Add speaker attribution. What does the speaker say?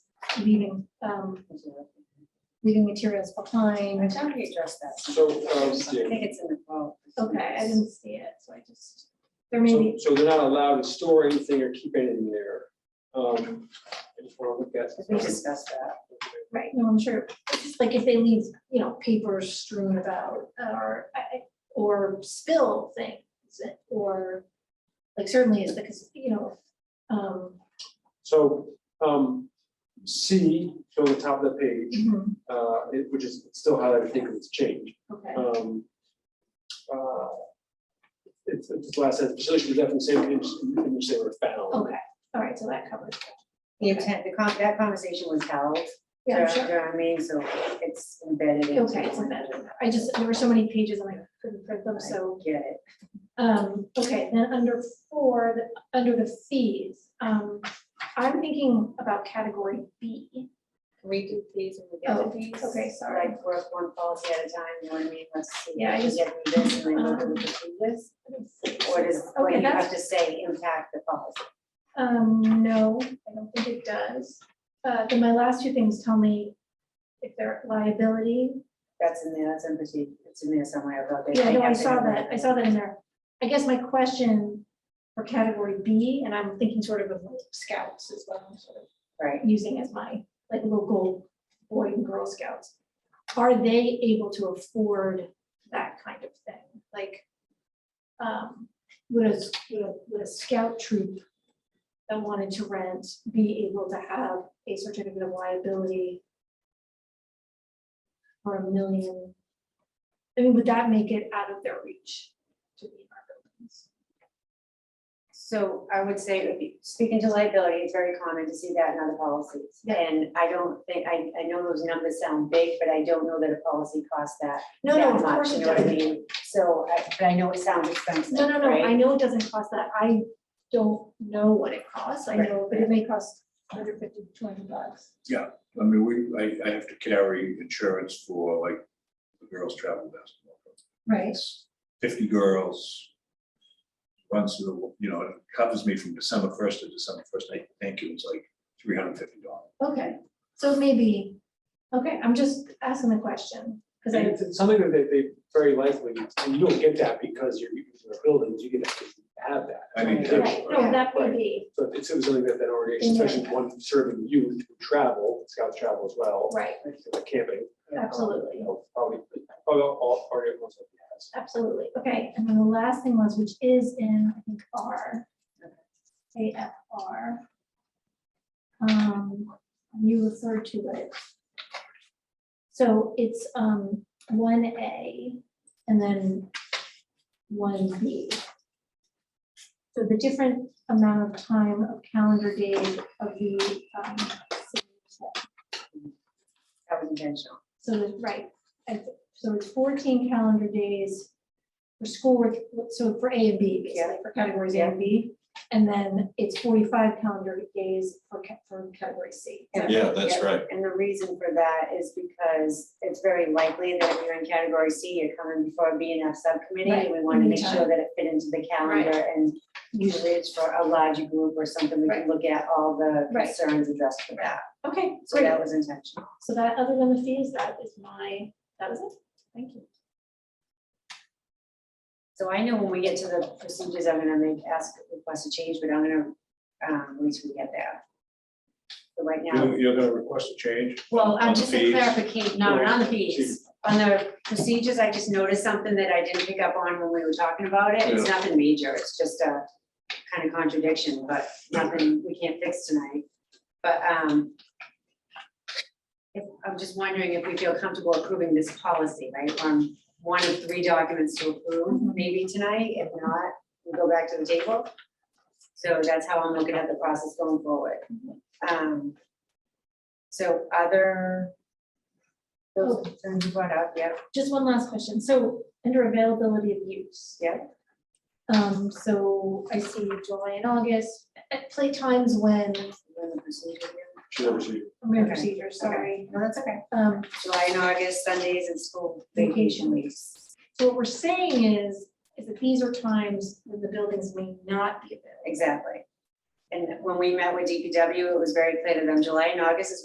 Speaker 1: leaving, um, leaving materials
Speaker 2: I
Speaker 1: behind.
Speaker 2: thought we addressed that.
Speaker 3: So, um,
Speaker 2: I
Speaker 3: yeah,
Speaker 2: think it's in the vote.
Speaker 1: Okay, I didn't see it, so I just, there may
Speaker 3: so,
Speaker 1: be,
Speaker 3: so they're not allowed to store anything or keep anything there. Um, I just wanna look at.
Speaker 2: Because we discussed that.
Speaker 1: right, no, I'm sure, it's just like if they leave, you know, papers strewn about, uh, or, I- I- or spill things, or, like certainly is because, you know, um,
Speaker 3: So, um, C, so the top of the page,
Speaker 1: Mm-hmm.
Speaker 3: uh, it, which is still highlighted, I think it's changed.
Speaker 1: okay,
Speaker 3: Um, uh, It's, it's this last sentence, facilities should be left in the same condition in which they were found.
Speaker 1: okay, all right, so that covers. it.
Speaker 2: The intent, the con, that conversation was held.
Speaker 1: Yeah, I'm
Speaker 2: during-
Speaker 1: sure.
Speaker 2: during our meeting, so it's embedded into.
Speaker 1: Okay, it's embedded I just, there were so many pages and I couldn't print them, so,
Speaker 2: I Get it.
Speaker 1: um, okay, then under four, the, under the fees, um, I'm thinking about category B.
Speaker 2: We do fees and we
Speaker 1: Oh,
Speaker 2: get the fees.
Speaker 1: okay, sorry.
Speaker 2: Like work one policy at a time, you know what I Uh-huh. mean? Let's see.
Speaker 1: Yeah, I
Speaker 2: if
Speaker 1: just-
Speaker 2: we Get through this and then we'll do this. Or does, or
Speaker 1: Okay,
Speaker 2: you have
Speaker 1: that's,
Speaker 2: to say impact the policy.
Speaker 1: um, no, I don't think it does. Uh, then my last two things tell me if they're liability.
Speaker 2: That's in there, that's in the, it's in there somewhere about. they
Speaker 1: Yeah, I
Speaker 2: may
Speaker 1: know, I
Speaker 2: have to
Speaker 1: saw
Speaker 2: have
Speaker 1: that, I saw that in there. I guess my question for category B, and I'm thinking sort of of scouts as well, sort of
Speaker 2: Right.
Speaker 1: using as my, like, local boy and girl scouts. Are they able to afford that kind of thing? Like, um, would a, would a- would a scout troop that wanted to rent be able to have a certificate of liability for a million? I mean, would that make it out of their reach to be in our buildings?
Speaker 2: So I would say, if you- speaking to liability, it's very common to see that in other policies.
Speaker 1: Yeah.
Speaker 2: And I don't think, I, I know those numbers sound big, but I don't know that a policy costs that.
Speaker 1: No, no,
Speaker 2: that
Speaker 1: of
Speaker 2: much,
Speaker 1: course it
Speaker 2: You know what I
Speaker 1: doesn't.
Speaker 2: mean? So, I- but I know it sounds expensive,
Speaker 1: No, no, no,
Speaker 2: right?
Speaker 1: I know it doesn't cost that, I don't know what it costs, I
Speaker 2: Right.
Speaker 1: know, but it may cost 150, 200 bucks.
Speaker 4: I mean, we, I, I have to carry insurance for like the girls' travel basketball. program.
Speaker 1: Right.
Speaker 4: It's Fifty girls. Runs through, the you know, it covers me from December first to December first. I think it was like three hundred and fifty dollars.
Speaker 1: Okay, so maybe, okay, I'm just asking the question, because
Speaker 3: And
Speaker 1: I,
Speaker 3: it's- it's something that they, they very likely, and you don't get that because you're, you're buildings, you get to have that.
Speaker 4: I mean,
Speaker 3: Right.
Speaker 1: right, no, that would be,
Speaker 3: So it's it was something that that already,
Speaker 1: Yeah.
Speaker 3: especially one serving youth who travel, scouts travel as well.
Speaker 1: right,
Speaker 3: Like Camping.
Speaker 1: Absolutely.
Speaker 3: You know, Probably, probably all, already most of has.
Speaker 1: absolutely, okay, and then the last thing was, which is in, I think, R. AFR. Um, you referred to it. So it's, um, one A and then one B. So the different amount of time of calendar days of the, um,
Speaker 2: That was intentional.
Speaker 1: So, the- right, I th- so it's fourteen calendar days for school, work- so for A and B, basically, for categories A and B. And then it's forty-five calendar days for, ca- for category C. Is that right?
Speaker 5: Yeah, that's right.
Speaker 2: And the reason for that is because it's very likely that if you're in category C, you're coming before a B and F subcommittee.
Speaker 1: Right,
Speaker 2: And we want to make sure
Speaker 1: anytime.
Speaker 2: that it fit into the calendar and usually it's for a larger group or something. We can look at all the
Speaker 1: Right.
Speaker 2: concerns addressed for that.
Speaker 1: Okay,
Speaker 2: So
Speaker 1: great.
Speaker 2: that was intentional.
Speaker 1: So that, other than the fees, that is my, that is it. Thank you.
Speaker 2: So I know when we get to the procedures, I'm gonna make, ask, request a change, but I'm gonna, um, once we get there. So right now,
Speaker 4: You're, you're gonna request a change?
Speaker 2: well,
Speaker 4: on
Speaker 2: I'm
Speaker 4: the
Speaker 2: just a
Speaker 4: fees?
Speaker 2: clarification, no, not on the
Speaker 4: She-
Speaker 2: fees. On the procedures, I just noticed something that I didn't pick up on when we were talking about it. It's
Speaker 4: Yeah.
Speaker 2: nothing major. It's just a kind of contradiction, but nothing we can't fix tonight. But um if, I'm just wondering if we feel comfortable approving this policy, right? On one of three documents to approve, maybe tonight. If not, we go back to the table. So that's how I'm looking at the process going forward. Um So other those
Speaker 1: Oh.
Speaker 2: concerns you brought up, yeah,
Speaker 1: Just one last question. So under availability of use.
Speaker 2: Yeah.
Speaker 1: Um, so I see July and August, at playtimes when,
Speaker 2: when the procedure here.
Speaker 3: She never see.
Speaker 1: I'm going
Speaker 2: Okay,
Speaker 1: procedure, sorry.
Speaker 2: No, that's okay.
Speaker 1: Um,
Speaker 2: July and August, Sundays and school
Speaker 1: Vacation.
Speaker 2: vacation weeks.
Speaker 1: So what we're saying is, is that these are times when the buildings may not be available.
Speaker 2: Exactly. And when we met with DPW, it was very clear to them, July and August is